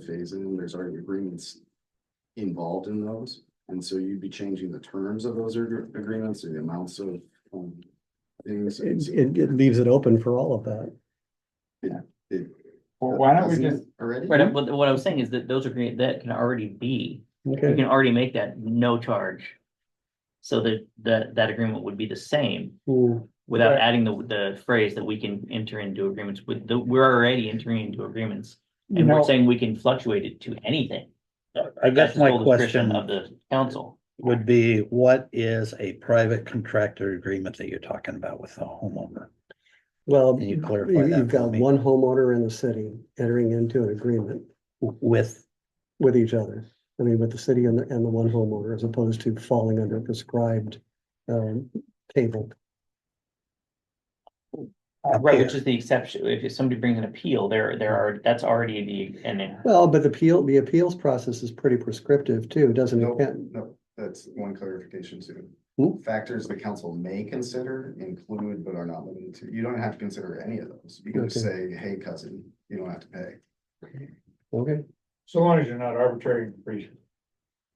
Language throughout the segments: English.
phase in, there's already agreements involved in those. And so you'd be changing the terms of those ag- agreements or the amounts of um, things. and It, so it, it leaves it open for all of that. it- Well, why don't we Hasn't it just, Already? Right, Mm-hmm. uh, what, what I was saying is that those are, great- that can already be, you Okay, can already make that no charge. So that, that, that agreement would be the same Hmm, without Right. adding the, the phrase that we can enter into agreements with, the, we're already entering into agreements. you And we're know, saying we can fluctuate it to anything. I That's guess the my sole discretion question Of the council. would be, what is a private contractor agreement that you're talking about with the homeowner? well, Can you- you clarify that? you've for got me? one homeowner in the city entering into an agreement With, with each other. I mean, with the city and the, and the one homeowner as opposed to falling under a prescribed, um, table. up Right, here. which is the exception, if somebody brings an appeal, there, there are, that's already the, and then, Well, but the appeal, the appeals process is pretty prescriptive too, doesn't No, it? Can't- no, that's one clarification too. Hmm? Factors the council may consider include but are not limited to, you don't have to consider any of those. You can just say, hey cousin, you don't have to pay. Okay, so long as you're not arbitrary and capricious,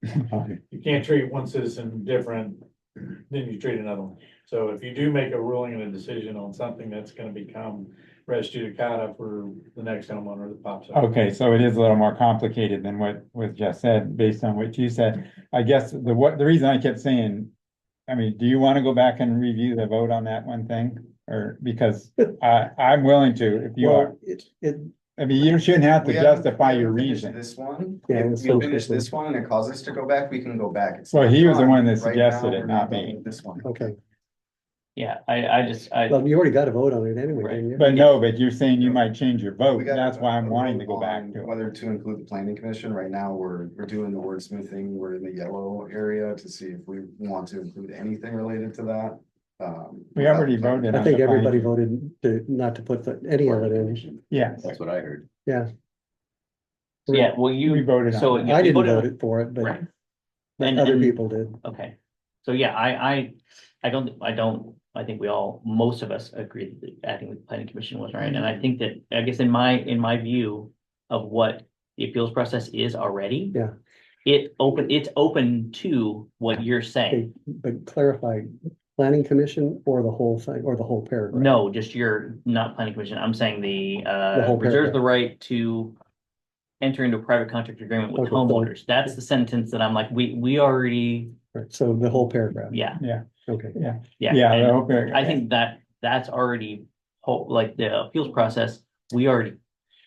you can't treat one citizen different than you treat another one. So if you do make a ruling and a decision on something that's gonna become res judicata for the next homeowner that pops up. Okay, so it is a little more complicated than what was just said, based on what you said. I guess the what, the reason I kept saying, I mean, do you want to go back and review the vote on that one thing? Or because I, I'm willing to, if you are, well, it, it, I mean, you shouldn't have to We haven't- justify we your haven't finished reason. This one, Yeah, if let's we go finish quickly. this one and it caused us to go back, we can go back. It's Well, not he was the done. one that Right suggested now, it, we're not done me. with This one. okay. yeah, I, I just, I, Well, you already got a vote on it anyway, Right, didn't you? But no, but you're saying you might change your vote. We got That's why I'm a wanting vote to go back on to it. Whether to include the planning commission, right now, we're, we're doing the wordsmithing, we're in the yellow area to see if we want to include anything related to that. Um, We already without- voted I on think the everybody finding. voted to, not to put the- any of it in. Yes, That's what I heard. yeah, well, we you, voted so. on it. you- I you didn't voted on- vote it for it, but Right. but And- other and- people did. Okay, so yeah, I, I, I don't, I don't, I think we all, most of us agree that acting with the planning commission was right, and I think that, I guess in my, in my view. Of what the appeals process is already. Yeah. It open, it's open to what you're Okay, saying, but clarify, planning commission or the whole thing, or the whole paragraph? no, just your, not planning commission, I'm saying the, The uh, whole reserves paragraph. the right to. Enter into a private contract agreement with Okay, fine. homeowners, that's the sentence that I'm like, we, we already, Right, so the whole paragraph, yeah, okay. yeah. Yeah, and- I hope. it- I think that that's already whole, like the appeals process, we already.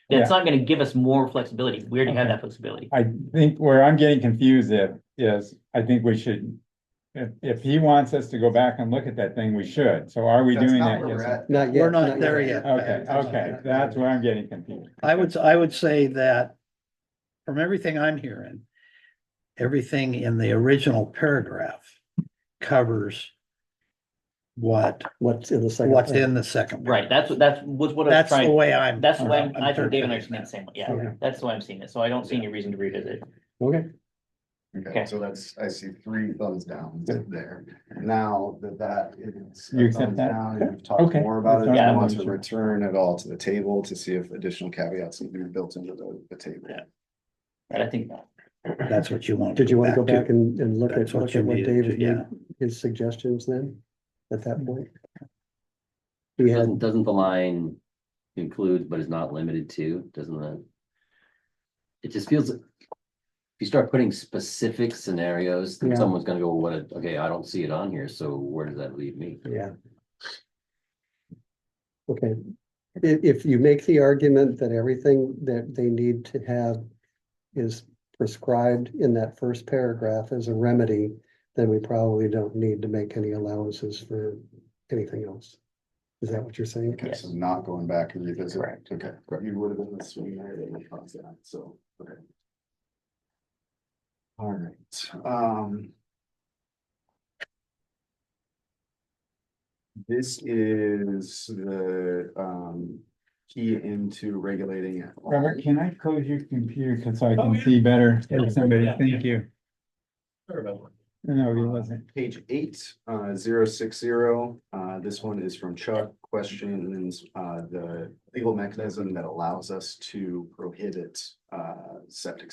That's not gonna give us more flexibility. We already have Okay. that flexibility. I think where I'm getting confused if, is, I think we should. If, if he wants us to go back and look at that thing, we should, so are we That's doing not that? where we're Yes. at. Not yet. We're not there yet. Okay, okay, that's where I'm getting confused. I would, I would say that from everything I'm hearing, everything in the original paragraph covers what, What's in the second? what's paragraph. in the second. Right, that's, what that's was what I was That's the trying, way I'm. that's the way, I'm- I'm I think Dave and I interpreting are the that. same, way. yeah, that's the way I'm seeing it. So I don't see any reason to revisit. Okay, Okay. Okay, so that's, I see three thumbs down there. Now that that is. a You accept thumbs that? down and We've talked Okay. more about it. Yeah. I want to return it all to the table to see if additional caveats have been built into the, the table. But I think, That's what you want. did you want to go back and, and look at, That's what look you at what needed David to- yeah. Mm-hmm. did, his suggestions then, at that point? We Doesn't, had, doesn't the line include but is not limited to, doesn't that? It just feels, if you start putting specific scenarios, then Yeah. someone's gonna go, what, a- okay, I don't see it on here, so where does that leave me? yeah. Okay, if, if you make the argument that everything that they need to have is prescribed in that first paragraph as a remedy, then we probably don't need to make any allowances for anything else. Is that what you're saying? Okay, Yes. so not going back and revisit. Correct. Okay, you would have been the swing there that would cause that, so, okay. All right, um. This is the, um, key into regulating. it. Robert, can I close your computer, cause so I Oh, can yeah. see better, Yeah. somebody, Yeah. thank you. Sorry about that. No, he wasn't. Uh, Page eight, uh, zero six zero, uh, this one is from Chuck, questions, uh, the legal mechanism that allows us to prohibit, uh, septic